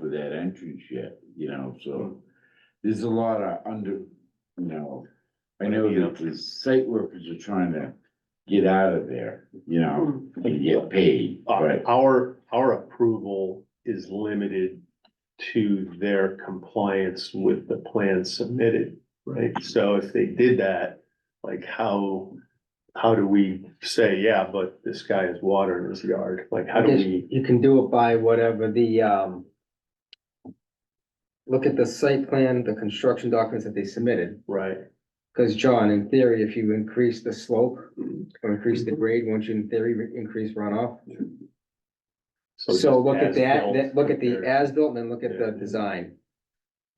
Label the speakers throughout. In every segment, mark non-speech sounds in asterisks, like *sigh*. Speaker 1: that entrance yet, you know, so there's a lot of under, you know. I know that the site workers are trying to get out of there, you know,
Speaker 2: Hmm.
Speaker 1: and get paid,
Speaker 3: Oh.
Speaker 4: Uh,
Speaker 1: but
Speaker 4: Our, our approval is limited to their compliance with the plan submitted, right? So if they did that, like how, how do we say, yeah, but this guy has water in his yard? Like, how do
Speaker 5: Because
Speaker 4: we?
Speaker 5: you can do it by whatever the, um. Look at the site plan, the construction documents that they submitted,
Speaker 4: Right,
Speaker 5: because John, in theory, if you increase the slope or increase
Speaker 4: Mm-hmm.
Speaker 5: the grade, won't you in theory re- increase runoff? So
Speaker 4: just
Speaker 5: look at that,
Speaker 4: as-built
Speaker 5: then look at the
Speaker 4: compared-
Speaker 5: as-built and then look at the
Speaker 4: Yeah.
Speaker 5: design.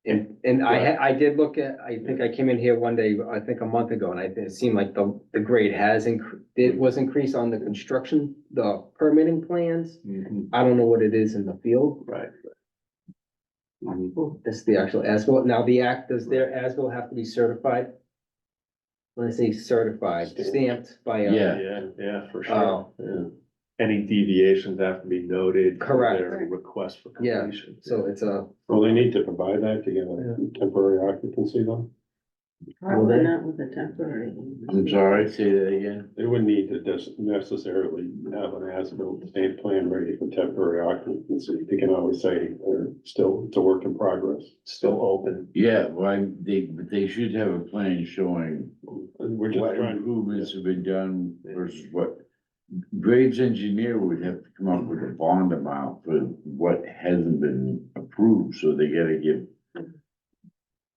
Speaker 5: And, and I, ha- I did look at, I think I came in here one day, I think a month ago, and I, it seemed like the, the grade has incre it was increased on the construction, the permitting plans.
Speaker 4: Mhm,
Speaker 5: I don't know what it is in the field,
Speaker 4: Right,
Speaker 5: That's the actual ASBIL. Now, the act, does their ASBIL have to be certified? When I say certified, stamped by uh, a,
Speaker 1: yeah,
Speaker 4: yeah, yeah, for sure.
Speaker 5: Oh.
Speaker 4: yeah. Any deviations have to be noted. for
Speaker 5: Correct.
Speaker 4: their Request for
Speaker 5: Yeah,
Speaker 4: completion.
Speaker 5: so it's a,
Speaker 3: Well, they need to provide that to get a temporary occupancy though.
Speaker 2: Probably
Speaker 5: they-
Speaker 2: not with a temporary.
Speaker 1: I'm sorry, say that again.
Speaker 3: They wouldn't need to des- necessarily have an as-built state plan ready for temporary occupancy. They can always say they're still, it's a work in progress.
Speaker 4: Still open.
Speaker 1: Yeah, well, they, but they should have a plan showing
Speaker 3: And we're just
Speaker 1: what
Speaker 3: trying,
Speaker 1: improvements have been done versus what. Graves engineer would have to come up with a bond amount for what hasn't been approved, so they gotta give.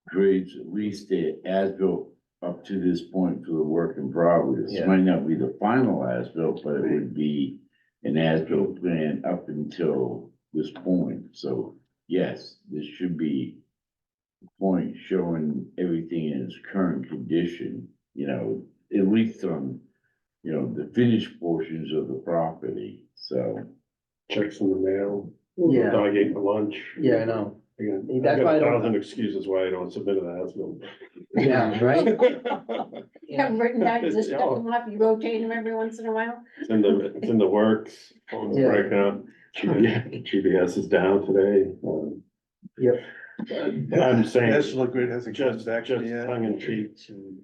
Speaker 1: Graves at least the as-built up to this point for the work in progress,
Speaker 4: Yeah.
Speaker 1: might not be the final as-built, but it would be. An as-built plan up until this point, so yes, this should be. a Point showing everything in its current condition, you know, at least on, you know, the finished portions of the property, so.
Speaker 3: checks in the mail,
Speaker 5: yeah,
Speaker 3: dog ate for lunch.
Speaker 5: yeah, I know.
Speaker 3: Again, I've
Speaker 5: That's why
Speaker 3: got
Speaker 5: I
Speaker 3: a
Speaker 5: don't-
Speaker 3: thousand excuses why I don't submit an as-built.
Speaker 5: *laughs* Yeah, right? Yeah.
Speaker 2: Have written down, just check them off, you rotate them every once in a while.
Speaker 3: It's in the, it's in the works, phone's
Speaker 5: Yeah.
Speaker 3: breaking up. GPS is down today. um,
Speaker 5: Yep.
Speaker 3: I'm saying.
Speaker 6: National Grid has a
Speaker 3: Just, just
Speaker 6: transaction, yeah.
Speaker 3: tongue in cheek,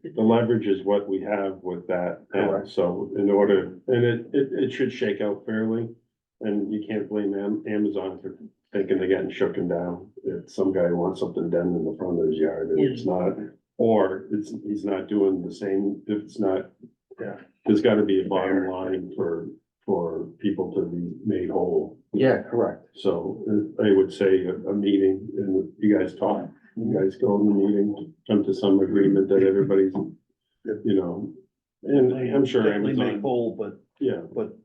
Speaker 3: the leverage is what we have with that, now.
Speaker 5: Correct.
Speaker 3: so in order, and it, it, it should shake out fairly. And you can't blame Am- Amazon for thinking they're getting shooken down, if some guy wants something done in the front of his yard and it's not. Or it's, he's not doing the same, if it's not.
Speaker 4: Yeah.
Speaker 3: There's gotta be a bottom line for, for people to be made whole.
Speaker 5: Yeah, correct.
Speaker 3: So uh, I would say a, a meeting and you guys talk, you guys go in the meeting, come to some agreement that everybody's, you know, and I'm sure
Speaker 6: Definitely make
Speaker 3: Amazon,
Speaker 6: whole, but,
Speaker 3: yeah,
Speaker 6: but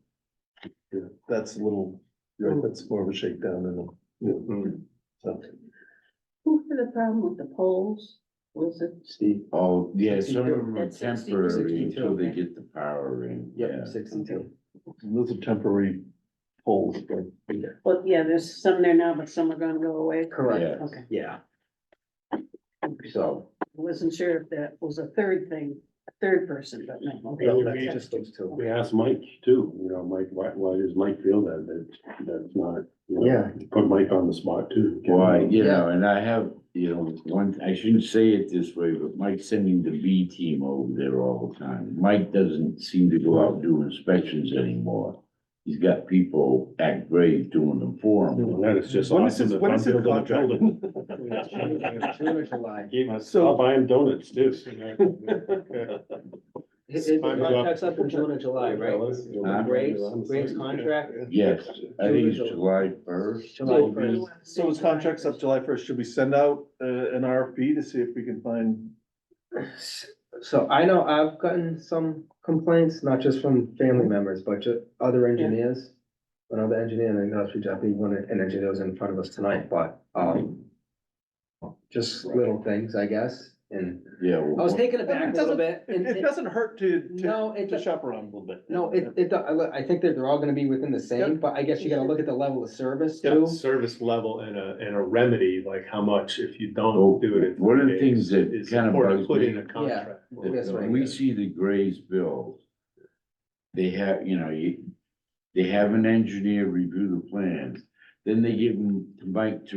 Speaker 3: Yeah.
Speaker 6: that's a little,
Speaker 3: Right.
Speaker 6: that's more of a shakedown than a,
Speaker 3: yeah.
Speaker 6: so.
Speaker 2: Who had the problem with the poles? Was it?
Speaker 5: Steve.
Speaker 1: Oh, yeah, some of them are
Speaker 2: That's 60,
Speaker 1: temporary
Speaker 5: 62,
Speaker 1: until they
Speaker 2: okay.
Speaker 1: get the power in, yeah.
Speaker 5: Yep, sixty-two.
Speaker 6: Those are temporary poles, but
Speaker 2: Well, yeah, there's some there now, but some are gonna go away.
Speaker 5: Correct,
Speaker 1: Yeah.
Speaker 2: Okay,
Speaker 5: yeah. So.
Speaker 2: I wasn't sure if that was a third thing, a third person, but no. okay.
Speaker 3: No, we
Speaker 5: Just those two.
Speaker 3: We asked Mike too, you know, Mike, why, why does Mike feel that, that, that's not, you know,
Speaker 5: Yeah.
Speaker 3: Put Mike on the spot too.
Speaker 1: Why, you
Speaker 5: Yeah.
Speaker 1: know, and I have, you know, one, I shouldn't say it this way, but Mike's sending the B team over there all the time. Mike doesn't seem to go out and do inspections anymore. He's got people at grave doing them for him.
Speaker 3: That is just.
Speaker 6: When is his-
Speaker 3: awesome.
Speaker 6: when is his
Speaker 3: I'm building a
Speaker 6: contract?
Speaker 3: building.
Speaker 5: June or July.
Speaker 3: Gave us,
Speaker 6: So-
Speaker 3: I'll buy him donuts
Speaker 6: *laughs*
Speaker 3: too.
Speaker 5: His, his
Speaker 3: Time is up.
Speaker 5: contract's up in June or July, right? Uh,
Speaker 1: Huh?
Speaker 5: Graves, Graves contract?
Speaker 1: Yes, I think it's July first.
Speaker 5: July first.
Speaker 6: So his contract's up July first, should we send out uh, an RFP to see if we can find?
Speaker 5: So I know I've gotten some complaints, not just from family members, but ju- other engineers. Another engineer, and I know we definitely one, an engineer was in front of us tonight, but, um. Just little things, I guess, and
Speaker 1: Yeah.
Speaker 5: I was taken aback a little bit.
Speaker 6: It
Speaker 5: and-
Speaker 6: it doesn't hurt to, to,
Speaker 5: No, it,
Speaker 6: to shop around a little bit.
Speaker 5: no, it, it, I look- I think that they're all gonna be within the same, but I guess you gotta look at the level of service
Speaker 4: Yeah,
Speaker 5: too.
Speaker 4: service level and a, and a remedy, like how much if you
Speaker 1: Well,
Speaker 4: don't do it. in
Speaker 1: one of the
Speaker 4: 30
Speaker 1: things
Speaker 4: days
Speaker 1: that
Speaker 4: is
Speaker 1: kind of
Speaker 4: important to
Speaker 1: bugs
Speaker 4: Put in
Speaker 1: me-
Speaker 4: a contract.
Speaker 1: When-
Speaker 5: That's
Speaker 1: when
Speaker 5: right.
Speaker 1: We see the Grays build. They have, you know, you, they have an engineer review the plans, then they give them to Mike to